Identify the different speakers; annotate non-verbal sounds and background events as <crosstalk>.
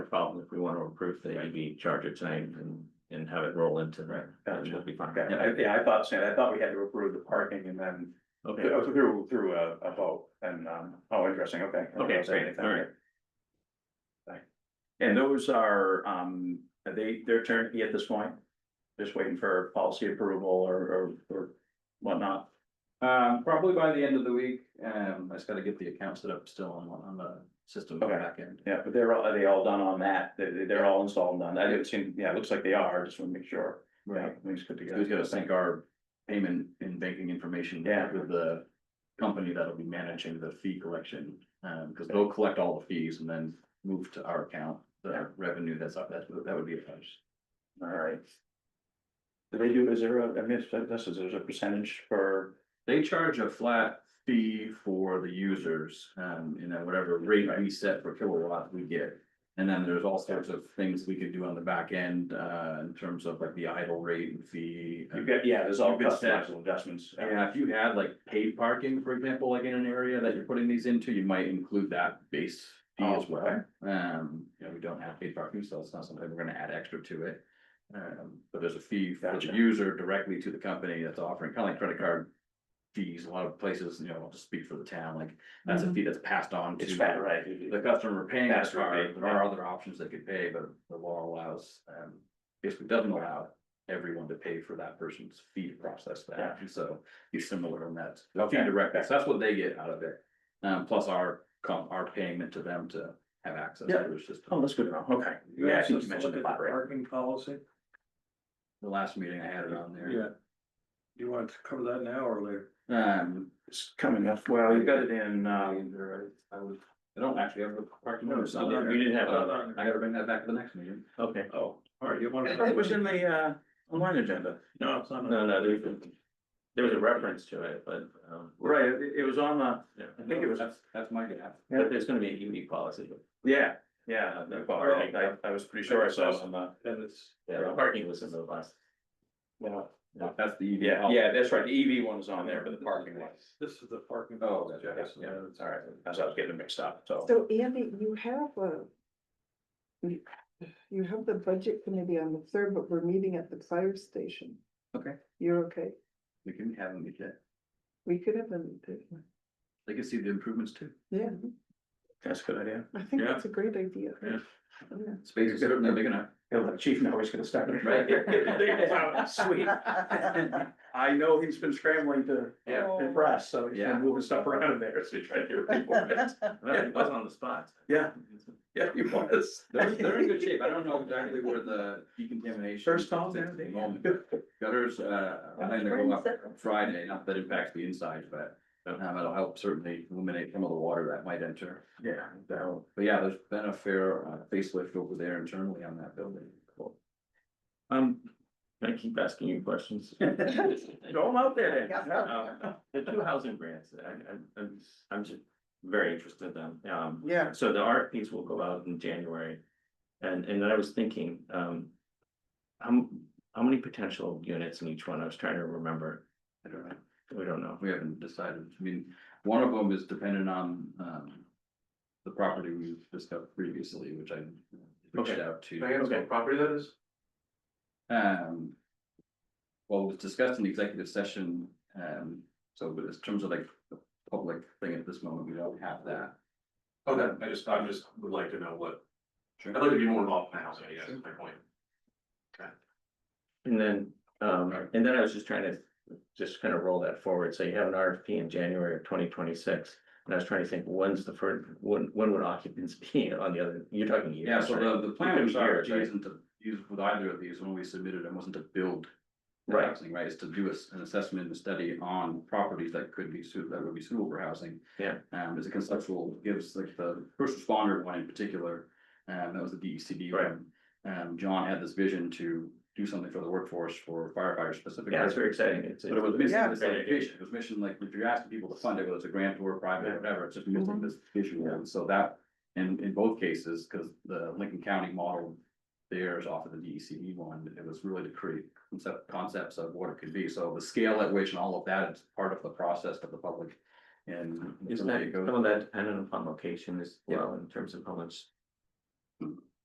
Speaker 1: we want to approve the EV charger tonight and, and have it roll into.
Speaker 2: Right.
Speaker 1: And we'll be fine.
Speaker 2: Okay, and I- yeah, I thought, Stan, I thought we had to approve the parking and then
Speaker 1: Okay,
Speaker 2: oh, through, through a, a vote and, um, oh, interesting, okay. I didn't
Speaker 1: Okay,
Speaker 2: know
Speaker 1: great,
Speaker 2: anything.
Speaker 1: all right.
Speaker 2: Right. And those are, um, are they, they're turnkey at this point? Just waiting for policy approval or, or, or whatnot?
Speaker 3: Um, probably by the end of the week, um, I just gotta get the account set up still on, on the system on the
Speaker 2: Okay.
Speaker 3: back end.
Speaker 2: Yeah, but they're all, are they all done on that? They're, they're all installed and done. I didn't see, yeah, it looks like they are, just want to make sure. Yeah, things good
Speaker 3: So We've
Speaker 2: together.
Speaker 3: gotta sync our payment and banking information
Speaker 2: Yeah.
Speaker 3: with the company that'll be managing the fee collection. Um, cause they'll collect all the fees and then move to our account,
Speaker 2: Yeah.
Speaker 3: the revenue that's up, that, that would be a punch.
Speaker 2: All right. Do they do, is there a, I missed, this is, there's a percentage for,
Speaker 3: They charge a flat fee for the users, um, and then whatever rate we set per kilowatt we get. And then there's all sorts of things we could do on the back end, uh, in terms of like the idle rate and fee. uh,
Speaker 2: you've got, yeah, there's all
Speaker 3: You've got that.
Speaker 2: customizable adjustments.
Speaker 3: Yeah, if you had like paid parking, for example, like in an area that you're putting these into, you might include that base fee
Speaker 2: Oh,
Speaker 3: as well. Um, you know, we don't have paid parking, so it's not something we're gonna add extra to it. Um, but there's a fee for the
Speaker 2: Gotcha.
Speaker 3: user directly to the company that's offering, kind of like credit card fees, a lot of places, you know, I'll just speak for the town, like, that's a fee that's passed on to
Speaker 2: Mm-hmm. It's fat, right?
Speaker 3: the customer paying that
Speaker 2: Faster
Speaker 3: card,
Speaker 2: rebate,
Speaker 3: there are other options they could pay, but the law allows, um, basically doesn't allow everyone to pay for that person's fee to process that,
Speaker 2: Yeah.
Speaker 3: and so he's similar in that. Fee
Speaker 2: Okay.
Speaker 3: direct, so that's what they get out of it, um, plus our, com- our payment to them to have access to
Speaker 2: Yeah.
Speaker 3: their system.
Speaker 2: Oh, that's good to know, okay. Yeah, I think you mentioned the flat rate.
Speaker 4: Parking policy,
Speaker 3: The last meeting I had it on
Speaker 4: yeah.
Speaker 3: there,
Speaker 4: Do you want to cover that now or later?
Speaker 3: um,
Speaker 2: It's coming up, well, you got it in,
Speaker 3: I
Speaker 2: um,
Speaker 3: mean, there I I was, I don't actually have a parking
Speaker 4: No,
Speaker 3: notice
Speaker 4: it's
Speaker 3: on
Speaker 4: not on
Speaker 3: there.
Speaker 4: there.
Speaker 1: you didn't have
Speaker 2: uh,
Speaker 1: it on there.
Speaker 3: Uh, I gotta bring that back to the next meeting.
Speaker 1: okay.
Speaker 4: Oh, all right, you want to?
Speaker 1: It was in the, uh, online agenda.
Speaker 4: No, it's not.
Speaker 1: No, no, there's, there was a reference to it, but, um,
Speaker 2: right, it, it was on the,
Speaker 1: yeah.
Speaker 2: I think it was-
Speaker 3: That's, that's my gap.
Speaker 1: But there's gonna be a unique policy.
Speaker 2: yeah, yeah, Uh, the bar, I, I was pretty sure I saw it on the.
Speaker 4: And it's,
Speaker 1: Yeah, the parking was in the last.
Speaker 2: Yeah,
Speaker 3: That's the. EV
Speaker 2: yeah,
Speaker 3: policy.
Speaker 2: yeah, that's right, the EV one was on there, but the parking lot,
Speaker 4: this is the parking.
Speaker 3: Oh,
Speaker 4: policy,
Speaker 3: yeah,
Speaker 4: Jackson.
Speaker 3: yeah,
Speaker 2: all right, that's how I was getting mixed up, so.
Speaker 5: So Andy, you have a. you- You have the budget committee on the third, but we're meeting at the fire station.
Speaker 3: Okay.
Speaker 5: You're okay?
Speaker 3: We can have them, yet.
Speaker 5: We could have them.
Speaker 3: they can see the improvements too.
Speaker 5: Yeah,
Speaker 2: That's a good idea.
Speaker 5: I think
Speaker 1: Yeah.
Speaker 5: that's a great idea.
Speaker 1: Yeah.
Speaker 5: Yeah.
Speaker 3: Space is certainly big enough.
Speaker 2: Yeah, the chief now he's gonna start. <laughs>
Speaker 3: Right.
Speaker 2: Sweet. I know he's been scrambling to
Speaker 3: Yeah.
Speaker 2: impress, so he's
Speaker 3: Yeah.
Speaker 2: been moving stuff around in there, so he's trying to. <laughs> do it.
Speaker 1: Well, it was on the spot.
Speaker 2: Yeah. Yeah, he was.
Speaker 3: They're, they're in good shape. I don't
Speaker 2: <laughs>
Speaker 3: know exactly where the decontamination.
Speaker 2: First call,
Speaker 3: is at the
Speaker 2: yeah.
Speaker 3: moment. Gutters, uh, I think they're going up Friday, not that it impacts the inside, but um, it'll help certainly eliminate some of the water that might enter.
Speaker 2: Yeah, that'll,
Speaker 3: But yeah, there's been a fair uh, facelift over there internally on that building.
Speaker 1: Um, I keep asking you questions.
Speaker 2: throw him out there
Speaker 5: Yeah.
Speaker 2: then. Yeah.
Speaker 1: Um, The two housing grants, I, I, I'm, I'm just very interested in them. Um,
Speaker 5: Yeah.
Speaker 1: so the RFPs will go out in January. And, and I was thinking, um, how, m- how many potential units in each one? I was trying to remember.
Speaker 3: I don't know.
Speaker 1: We don't know.
Speaker 3: We haven't decided. I mean, one of them is dependent on, um, the property we've discussed previously, which I reached
Speaker 1: Okay.
Speaker 3: out to.
Speaker 1: Okay.
Speaker 4: property that is?
Speaker 3: Um. Well, it was discussed in the executive session, um, so but in terms of like the public thing at this moment, we don't have that.
Speaker 4: Okay, Oh, I just, I just would like to know what, I'd like to be more involved in the housing, I guess, is my point.
Speaker 1: And then, um, and then I was just trying to, just kind of roll that forward, so you have an RFP in January of twenty twenty-six. And I was trying to think, when's the first, when, when would occupants <laughs> be on the other, you're talking years,
Speaker 3: Yeah, so
Speaker 1: right?
Speaker 3: the, the
Speaker 1: It
Speaker 3: plan
Speaker 1: could
Speaker 3: was
Speaker 1: be years,
Speaker 3: RFG isn't to use with either of these when we submitted, it wasn't to build. the
Speaker 1: Right.
Speaker 3: Housing, right, it's to do a s- an assessment and a study on properties that could be suitable, that would be suitable for housing.
Speaker 1: Yeah.
Speaker 3: Um, as a conceptual, gives like the first responder one in particular, um, that was the D E C D
Speaker 1: Right.
Speaker 3: one. Um, John had this vision to do something for the workforce for firefighters specifically.
Speaker 1: Yeah, it's very exciting, it's.
Speaker 3: But it was missing
Speaker 5: Yeah.
Speaker 3: this like vision, it was mission, like, if you're asking people to fund it, whether it's a grant or private, or whatever, it's just missing
Speaker 1: Mm-hmm.
Speaker 5: Mhm.
Speaker 3: this vision, and so that. And in both cases, because the Lincoln County model there is off of the DECD E one, it was really to create concept, concepts of what it could be, so the scale at which and all of that is part of the process to the public. And.
Speaker 1: Isn't
Speaker 3: really
Speaker 1: that,
Speaker 3: it
Speaker 1: some
Speaker 3: goes-
Speaker 1: of that dependent upon location as well, in terms of how much